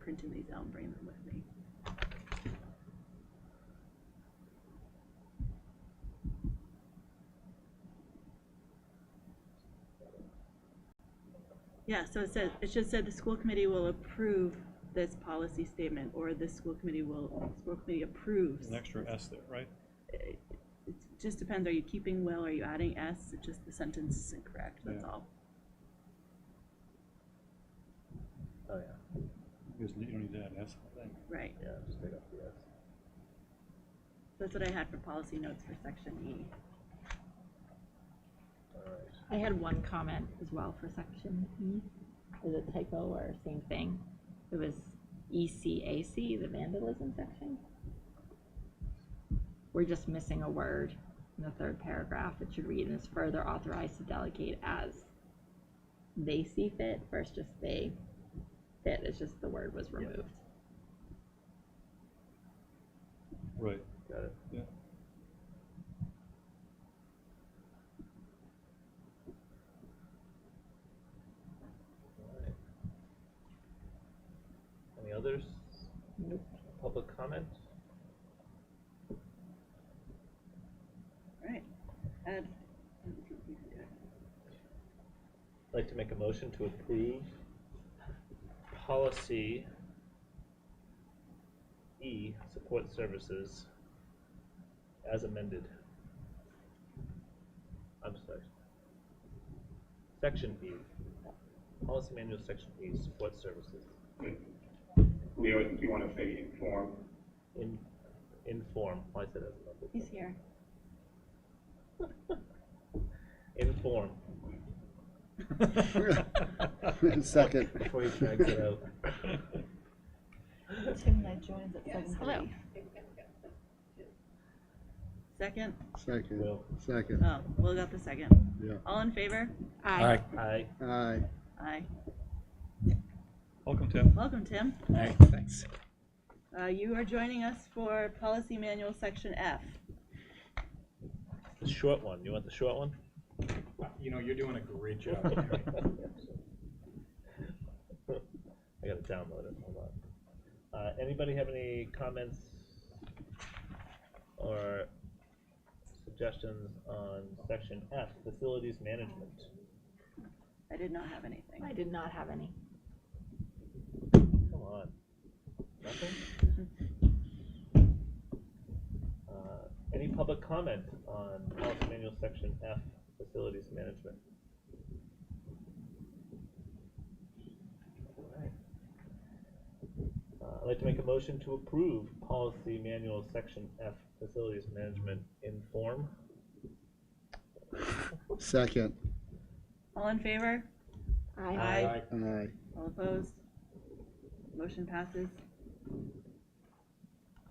printing these out and bringing them with me. Yeah, so it said, it just said the school committee will approve this policy statement, or the school committee will, school committee approves. An extra S there, right? It it just depends, are you keeping will, are you adding s, It just the sentence is incorrect, that's Yeah. all. Oh, yeah, Because you don't need to add an S, I think. Right, yeah, just take off the S. that's what I had for policy notes for section E. All right. I had one comment as well for section E. Is it typo or same thing? It was E ECAC, the vandalism section. We're just missing a word in the third paragraph. It should read is further authorized to delegate as they see fit versus just they fit. It's just the word was removed. Right, Got it. yeah. All right. Any others? Nope. Public comment? Right. Ed? I'd like to make a motion to approve policy E, support services, as amended. I'm sorry. Section E, policy manual, section E, support services, Leo, you want to say inform? in, inform, why is it as amended? He's here. Inform, Second. before he drags it out. Hello. Second? Second. Will, Second, Oh, Will got the second. yeah. All in favor? Aye. aye. Aye. Aye. Welcome, Tim. Welcome, Tim. All right, thanks. Uh, you are joining us for Policy Manual Section F. The short one, you want the short one? You know, you're doing a great job. Mary. I gotta download it, hold on. Uh, anybody have any comments or suggestions on section F, facilities management? I did not have anything. I did not have any. Come on. Nothing? Uh, Any public comment on policy manual section F, facilities management? Alright. Uh, I'd like to make a motion to approve policy manual section F, facilities management in form. Second. All in favor? Aye. Aye. Aye. All opposed? Motion passes.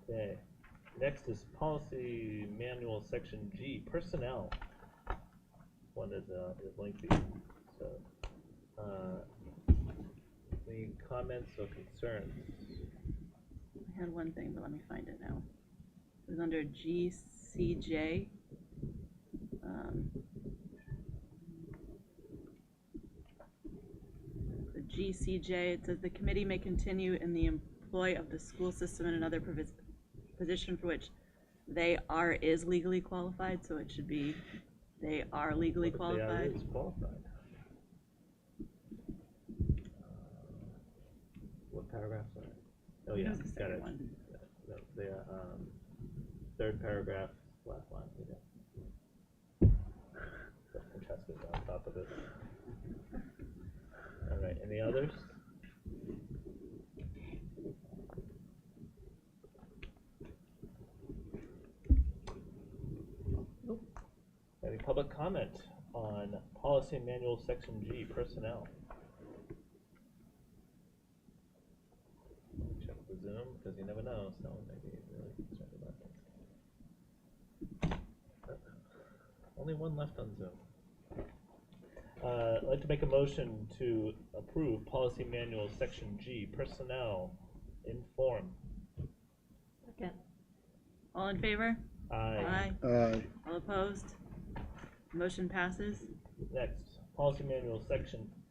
Okay, next is policy manual, section G, personnel. One is, uh, is lengthy, so, uh, any comments or concerns? I had one thing, but let me find it now. It was under GCJ. Um, The GCJ, it says the committee may continue in the employ of the school system in another provis- position for which they are is legally qualified, so it should be they are legally What if they are qualified. really Qualified. What paragraphs are? it? Oh, yeah, That's the got second it. one. No, They are, um, third paragraph, last line, yeah. Francesca's on top of it. All right, any others? Nope. Any public comment on policy manual section G, personnel? Check the Zoom, because you never know, someone may be really concerned about that. Only one left on Zoom. Uh, I'd like to make a motion to approve policy manual section G, personnel, in form. Second. All in favor? Aye. Aye. All opposed? Motion passes. Next, policy manual section